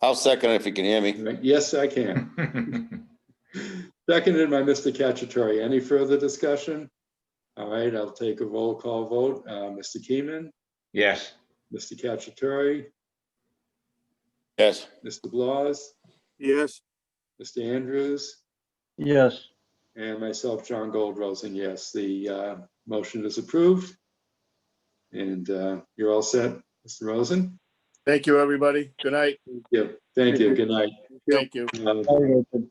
I'll second it if you can hear me. Yes, I can. Seconded by Mr. Cacciatore. Any further discussion? All right, I'll take a roll call vote. Uh, Mr. Keeman, Yes, Mr. Cacciatore, Yes, Mr. Blas, yes, Mr. Andrews, yes, and myself, John Goldrosen. Yes, the uh, motion is approved. And uh, you're all set, Mr. Rosen? thank you, everybody. Good night. Yeah, thank you. Good night. Thank you. Uh, Very good.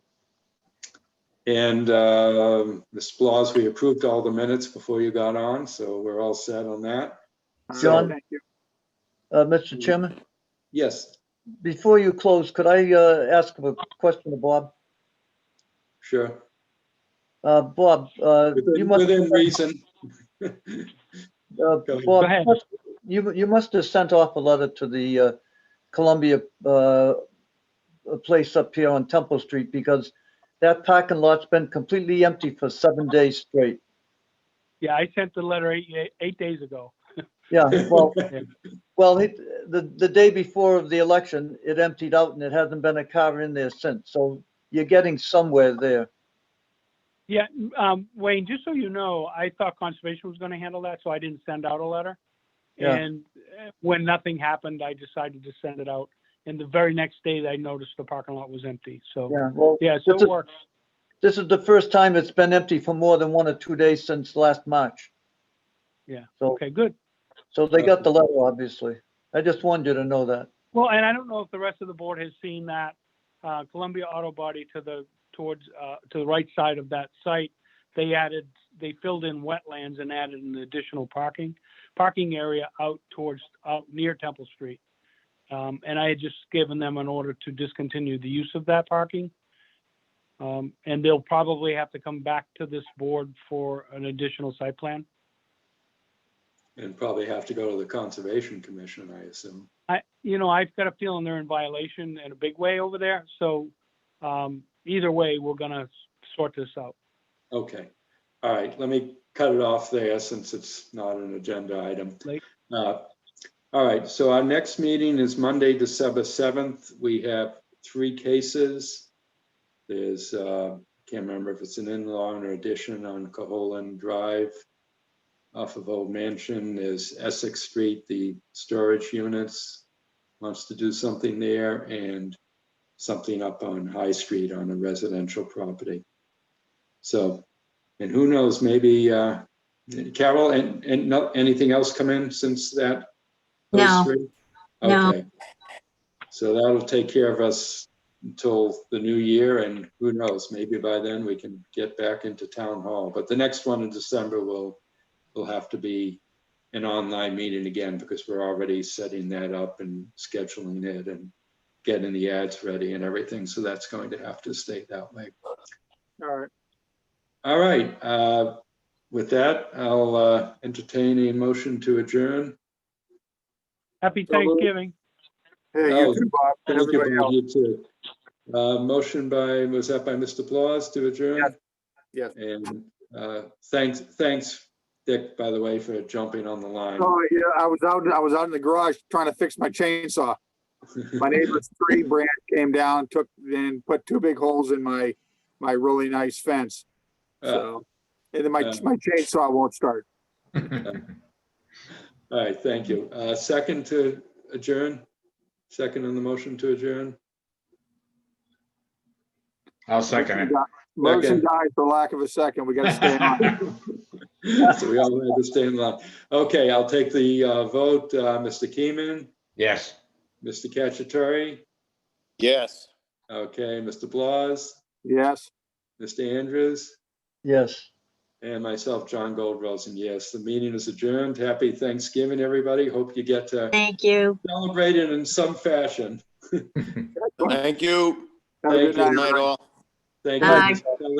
And um, Ms. Blas, we approved all the minutes before you got on, so we're all set on that. John? So, Uh, Mr. Chairman, Yes, before you close, could I, uh, ask a question of Bob? sure. Uh, Bob, uh, you Within must, within reason. uh, ahead. Bob, Go ahead. you, you must have sent off a letter to the, uh, Columbia, uh, place up here on Temple Street because that parking lot's been completely empty for seven days straight. Yeah, I sent the letter eight, eight days ago. Yeah, well, well, it, the, the day before of the election, it emptied out and it hasn't been a car in there since. So you're getting somewhere there. Yeah, um, Wayne, just so you know, I thought conservation was gonna handle that, so I didn't send out a letter. Yeah. And uh, when nothing happened, I decided to send it out. And the very next day, I noticed the parking lot was empty, so, Yeah, well, yeah, so It's a- it works. this is the first time it's been empty for more than one or two days since last March. Yeah, So, Okay, good. so they got the letter, obviously. I just wanted you to know that. Well, and I don't know if the rest of the board has seen that, uh, Columbia Auto Body to the, towards, uh, to the right side of that site, they added, they filled in wetlands and added an additional parking, parking area out towards, out near Temple Street. Um, and I had just given them an order to discontinue the use of that parking. Um, and they'll probably have to come back to this board for an additional site plan. And probably have to go to the Conservation Commission, I assume. I, you know, I've got a feeling they're in violation in a big way over there, so, um, either way, we're gonna sort this out. Okay, all right, let me cut it off there since it's not an agenda item. Late. Uh, All right, so our next meeting is Monday, December 7th. We have three cases. There's, uh, can't remember if it's an in-law or addition on Caholen Drive off of Old Mansion. There's Essex Street, the storage units wants to do something there and something up on High Street on a residential property. So, and who knows, maybe, uh, Carol, and, and no, anything else come in since that? those No. three? No. Okay. So that'll take care of us until the new year and who knows, maybe by then we can get back into town hall. But the next one in December will, will have to be an online meeting again because we're already setting that up and scheduling it and getting the ads ready and everything. So that's going to have to stay that way. All right. All right, uh, with that, I'll uh, entertain a motion to adjourn. Happy So moved. Thanksgiving. Hey, Oh, you too, Bob, and Thank you, everybody Bob, else. you too. Uh, Motion by, was that by Mr. Blas to adjourn? Yes. And uh, thanks, thanks, Dick, by the way, for jumping on the line. Oh, yeah, I was out, I was out in the garage trying to fix my chainsaw. My neighbor's tree branch came down, took, and put two big holes in my, my really nice fence. Uh, So, and then my, Uh. my chainsaw won't start. All right, thank you. Uh, Second to adjourn? Second on the motion to adjourn? I'll second Motion Second. died for lack of a second. We gotta stay on. it. So we all had to stay in line. Okay, I'll take the uh, vote. Uh, Mr. Keeman, Yes. Mr. Cacciatore? yes. Okay, Mr. Blas, Yes. Mr. Andrews, Yes. and myself, John Goldrosen. Yes, the meeting is adjourned. Happy Thanksgiving, everybody. Hope you get to Thank you. celebrate it in some fashion. Thank you. Have a Thank good you. Good night. night, all. Thank Bye. you.